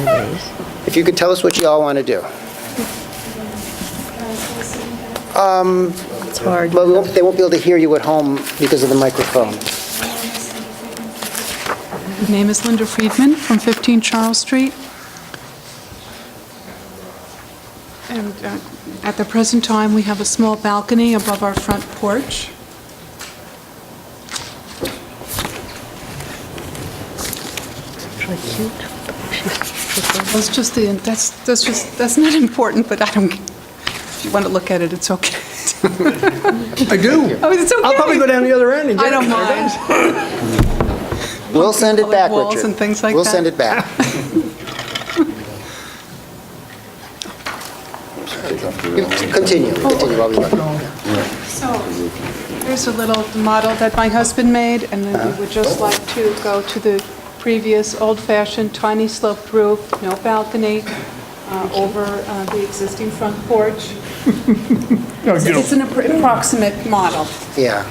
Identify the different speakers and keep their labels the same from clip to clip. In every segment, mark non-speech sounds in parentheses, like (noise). Speaker 1: anyways.
Speaker 2: If you could tell us what you all want to do.
Speaker 1: It's hard.
Speaker 2: Um, But we won't- they won't be able to hear you at home because of the microphone.
Speaker 3: My name is Linda Friedman from 15 Charles Street. And uh, at the present time, we have a small balcony above our front porch. That's just the, that's, that's just, that's not important, but I don't, if you want to look at it, it's okay.
Speaker 4: I do.
Speaker 3: Oh, it's okay.
Speaker 4: I'll probably go down the other end and
Speaker 3: I
Speaker 4: get
Speaker 3: don't
Speaker 4: it.
Speaker 3: mind.
Speaker 2: We'll send it back, Richard.
Speaker 3: Walls and things like
Speaker 2: We'll
Speaker 3: that.
Speaker 2: send it
Speaker 3: (laughs)
Speaker 2: back. You- Continue, continue while we look.
Speaker 3: So, here's a little model that my husband made, and then we would just
Speaker 2: Uh-huh.
Speaker 3: like to go to the previous old-fashioned tiny sloped roof, no balcony, uh, over uh, the existing front porch. It's an appro- approximate model.
Speaker 2: Yeah,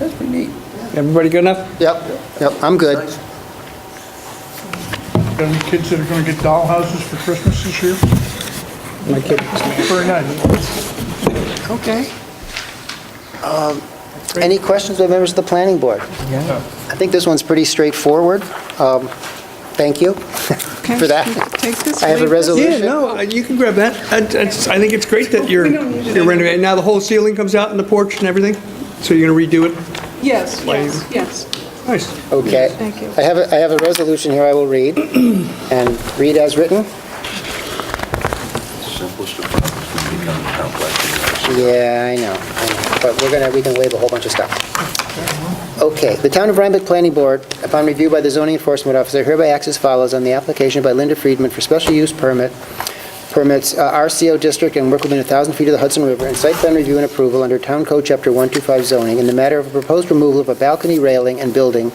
Speaker 4: Everybody good enough?
Speaker 2: yep, yep, I'm good.
Speaker 5: Got any kids that are gonna get dollhouses for Christmas this year?
Speaker 4: My kid,
Speaker 5: Very nice.
Speaker 2: Okay. Um, Any questions by members of the planning board? I think this one's pretty straightforward. Um, Thank you
Speaker 3: Okay,
Speaker 2: for that.
Speaker 3: Take this.
Speaker 2: I have a
Speaker 3: leave this.
Speaker 2: resolution.
Speaker 4: Yeah, no, uh, you can grab that. I it's- I think it's great that you're you're renovating. Now, the whole ceiling comes out in the porch and everything? So you're going to redo it?
Speaker 3: Oh, Yes, yes, yes.
Speaker 4: Nice.
Speaker 2: Okay.
Speaker 3: Thank you.
Speaker 2: I have, a I have a resolution here I will read, (clears throat) and read as written.
Speaker 6: simplest of problems can become complex. and
Speaker 2: Yeah, I know, I know, but we're gonna, we can waive a whole bunch of stuff. Okay, the Town of Rhinebeck Planning Board, upon review by the zoning enforcement officer, hereby acts as follows on the application by Linda Friedman for special use permit, permits uh, RCO district and work within 1,000 feet of the Hudson River, and site plan review and approval under Town Code Chapter 125 zoning in the matter of a proposed removal of a balcony railing and building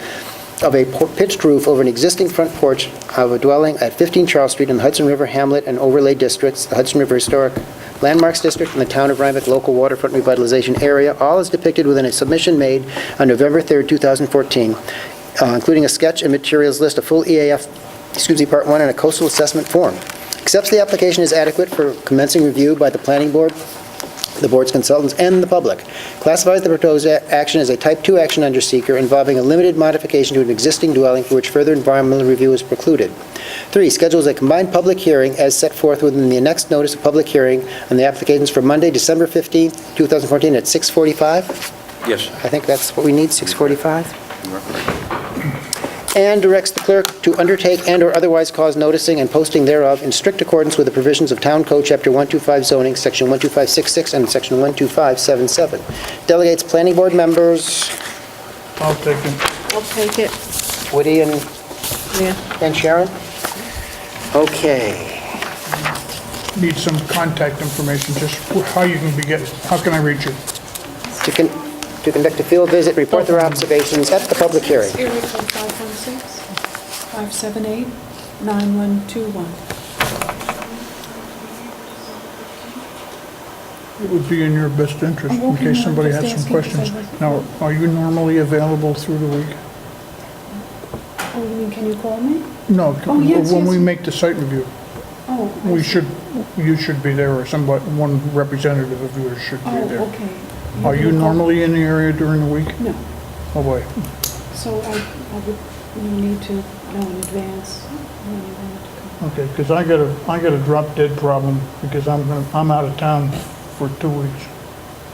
Speaker 2: of a por- pitched roof over an existing front porch of a dwelling at 15 Charles Street in the Hudson River Hamlet and Overlay Districts, the Hudson River Historic Landmarks District, and the Town of Rhinebeck Local Waterfront Revitalization Area, all is depicted within a submission made on November 3rd, 2014, uh, including a sketch and materials list, a full EAF, excuse me, Part 1, and a coastal assessment form. Accepts the application is adequate for commencing review by the planning board, the board's consultants, and the public. Classifies the proposed a- action as a Type 2 action under seeker involving a limited modification to an existing dwelling for which further environmental review is precluded. Three, schedules a combined public hearing as set forth within the next notice of public hearing on the applications for Monday, December 15th, 2014, at 6:45.
Speaker 6: Yes.
Speaker 2: I think that's what we need, 6:45? and directs the clerk to undertake and/or otherwise cause noticing and posting thereof in strict accordance with the provisions of Town Code Chapter 125 zoning, Section 12566 and Section 12577. Delegates planning board members,
Speaker 5: I'll take them.
Speaker 1: I'll take it,
Speaker 2: Woody and
Speaker 1: yeah.
Speaker 2: and Sharon? Okay.
Speaker 5: Need some contact information, just how you can be get, how can I reach you?
Speaker 2: To con- to conduct a field visit, report their observations at the public hearing.
Speaker 3: Area code 516-578-9121.
Speaker 5: It would be in your best interest in case somebody has some questions. Now, are you normally available through the week?
Speaker 3: Oh, you mean, can you call me?
Speaker 5: No,
Speaker 3: Oh, yes,
Speaker 5: when
Speaker 3: yes.
Speaker 5: we make the site review,
Speaker 3: Oh, I
Speaker 5: we
Speaker 3: see.
Speaker 5: should, you should be there or somebody, one representative of yours should be
Speaker 3: Oh,
Speaker 5: there.
Speaker 3: okay.
Speaker 5: Are you
Speaker 3: can call-
Speaker 5: normally in the area during the week?
Speaker 3: No.
Speaker 5: Oh, boy.
Speaker 3: So I, I would, you need to know in advance when you want to come.
Speaker 5: Okay, because I got a, I got a drop dead problem because I'm, gonna- I'm out of town for two weeks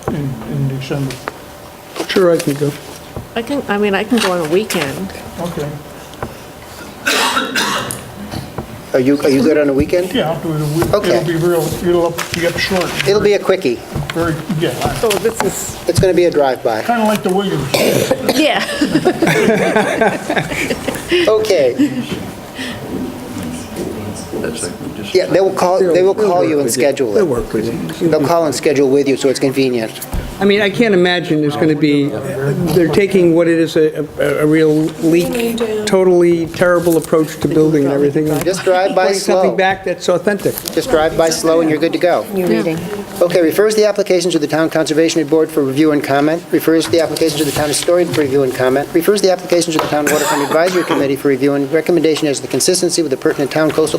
Speaker 5: in, in December.
Speaker 4: Sure, I can go.
Speaker 1: I can, I mean, I can go on a weekend.
Speaker 5: Okay,
Speaker 2: Are you, are you good on a weekend?
Speaker 5: yeah, I'll do it. a week.
Speaker 2: Okay.
Speaker 5: It'll be real, it'll up- be up short.
Speaker 2: It'll be a quickie.
Speaker 5: Very, yeah,
Speaker 1: So this is,
Speaker 2: It's going to be a drive-by.
Speaker 5: kind of like the Williams.
Speaker 1: yeah.
Speaker 2: Okay.
Speaker 6: That's like, we just.
Speaker 2: Yeah, they will call, they will call you and schedule
Speaker 4: They'll
Speaker 2: it.
Speaker 4: work with you.
Speaker 2: They'll call and schedule with you, so it's convenient.
Speaker 4: I mean, I can't imagine there's going to be, they're taking what it is, a, a a real leak, totally terrible approach to building and everything. (laughs)
Speaker 2: Just drive by
Speaker 4: Bring
Speaker 2: slow.
Speaker 4: something back that's authentic.
Speaker 2: Just drive by slow and you're good to go.
Speaker 1: You're reading.
Speaker 2: Okay, refers the application to the Town Conservation Board for review and comment, refers the application to the Town Historian for review and comment, refers the application to the Town Waterfront Advisory Committee for review and recommendation as the consistency with the pertinent town coastal